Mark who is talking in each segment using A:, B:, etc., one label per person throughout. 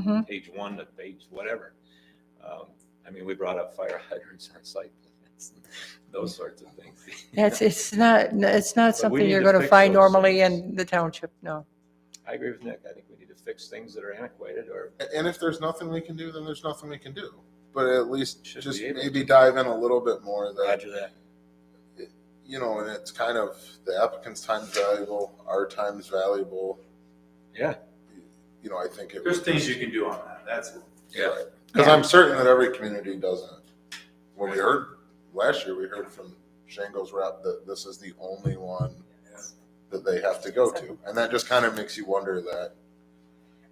A: Mhm.
B: page one to page whatever. Um, I mean, we brought up fire hydrants on site plans, and those sorts of things.
A: It's, it's not, it's not
B: But we
A: something
B: need
A: you're
B: to
A: going to
B: fix
A: find
B: those
A: normally
B: things.
A: in the township, no.
B: I agree with Nick. I think we need to fix things that are antiquated or
C: A- And if there's nothing we can do, then there's nothing we can do. But at least
B: Should
C: just
B: be able
C: maybe dive in a little bit more that,
B: Roger that.
C: you know, and it's kind of the applicant's time is valuable, our time is valuable.
B: Yeah.
C: You know, I think it
D: There's things you can do on that, that's,
B: Yeah.
C: Because I'm certain that every community does it. When we heard last year, we heard from Shango's rep that this is the only one that they have to go to. And that just kind of makes you wonder that,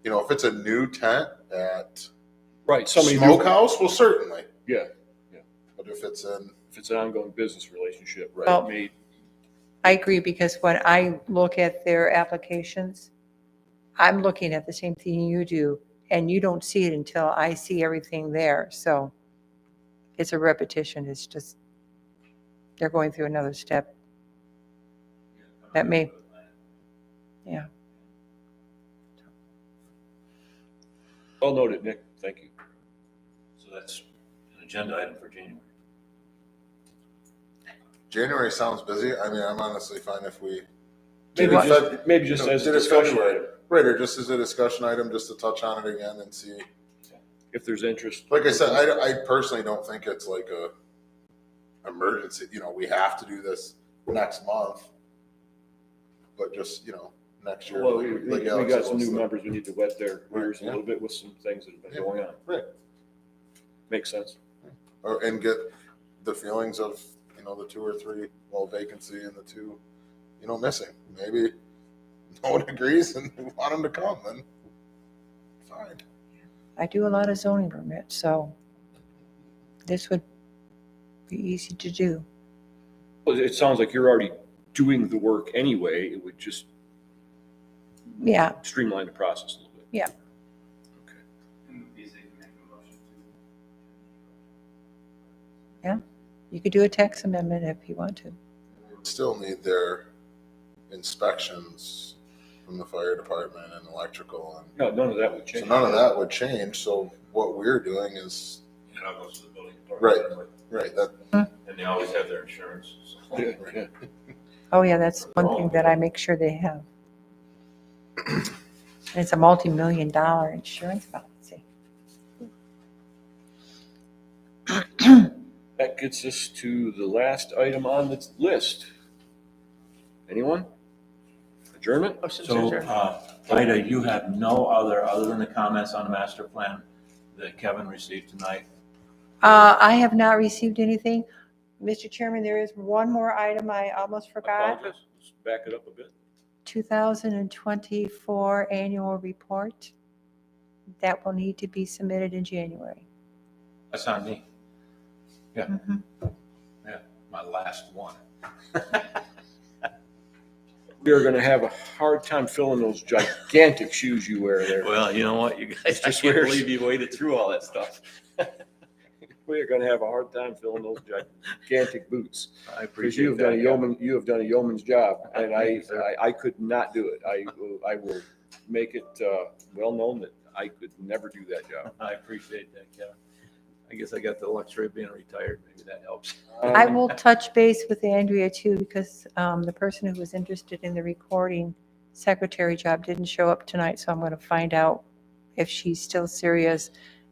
C: you know, if it's a new tent at
E: Right, somebody, do-
C: Smokehouse, well, certainly.
E: Yeah, yeah.
C: But if it's in,
E: if it's an ongoing business relationship,
A: Well-
E: right, made,
A: I agree, because when I look at their applications, I'm looking at the same thing you do, and you don't see it until I see everything there, so it's a repetition, it's just, they're going through another step. That may, yeah.
E: well noted, Nick, thank you.
D: so that's an agenda item for January.
C: January sounds busy. I mean, I'm honestly fine if we.
E: Maybe
C: Did it Feb-
E: just, maybe just
C: no,
E: as a
C: did it
E: discussion
C: February?
E: item,
C: Right, or just as a discussion item, just to touch on it again and see.
E: if there's interest.
C: Like I said, I, I personally don't think it's like a emergency, you know, we have to do this next month. But just, you know, next year.
E: Well,
C: like-
E: we,
C: like
E: we
C: Alex
E: got
C: said,
E: some
C: let's
E: new
C: look-
E: members, we need to wet their
C: Right,
E: ears a
C: yeah.
E: little bit with some things that have
C: Yeah,
E: been going on.
C: right.
E: Makes sense.
C: Or, and get the feelings of, you know, the two or three, well, vacancy and the two, you know, missing. Maybe no one agrees and we want them to come, then fine.
A: I do a lot of zoning permits, so this would be easy to do.
E: Well, it sounds like you're already doing the work anyway, it would just
A: Yeah,
E: streamline the process a little bit.
A: you could do a tax amendment if you want to.
C: Still need their inspections from the fire department and electrical and
E: No, none of that would
C: So
E: change.
C: none of that would change, so what we're doing is,
D: It all goes to the building
C: Right.
D: department.
C: right, that,
D: And they always have their insurance, so.
E: Yeah, yeah.
A: Oh, yeah, that's one thing that I make sure they have. And it's a multi-million dollar insurance policy.
E: That gets us to the last item on the list. Anyone? Adjournment?
D: So, uh, Ida, you have no other, other than the comments on the master plan that Kevin received tonight?
A: Uh, I have not received anything. Mr. Chairman, there is one more item I almost forgot.
E: Apologize. Let's Back it up a bit.
A: 2024 annual report that will need to be submitted in January.
D: That's on me,
A: Mhm.
D: my last one.
E: We are gonna have a hard time filling those gigantic shoes you wear there.
B: Well, you know what, you guys, I
E: Mr.
B: can't
E: Swears.
B: believe you waited through all that stuff.
E: We are gonna have a hard time filling those gigantic boots.
B: I
E: Because
B: appreciate
E: you
B: that.
E: have done a
B: yeah.
E: yeoman, you have done a yeoman's job, and I,
B: Thank you, sir.
E: I, I could not do it. I, will- I will make it, uh, well known that I could never do that job.
B: I appreciate that, Kevin. I guess I got the luxury of being retired, maybe that helps.
A: I
E: Um,
A: will touch base with Andrea too, because um, the person who was interested in the recording secretary job didn't show up tonight, so I'm going to find out if she's still serious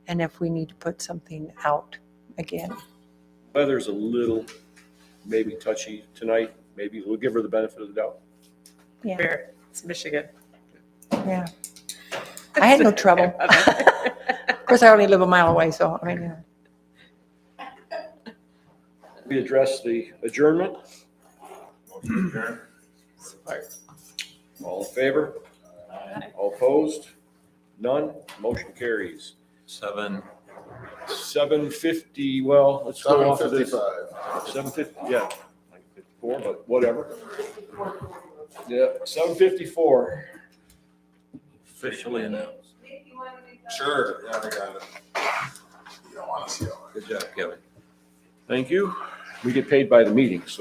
A: and if we need to put something out again.
E: Weather's a little maybe touchy tonight, maybe we'll give her the benefit of the doubt.
A: Yeah,
F: Fair. It's Michigan.
A: yeah. I had no trouble. Of course, I only live a mile away, so I mean, yeah.
E: We address the adjournment,
D: Motion adjourned.
E: all in favor, all opposed, none, motion carries.
B: Seven,
E: Seven fifty, well, let's go
C: seven
E: off of this.
C: fifty-five.
E: Seven fifty, yeah, like fifty-four, but whatever. Yeah, seven fifty-four.
B: officially announced.
C: Sure, yeah, I got it. You don't wanna see all that.
B: Good job, Kevin.
E: Thank you. We get paid by the meeting, so.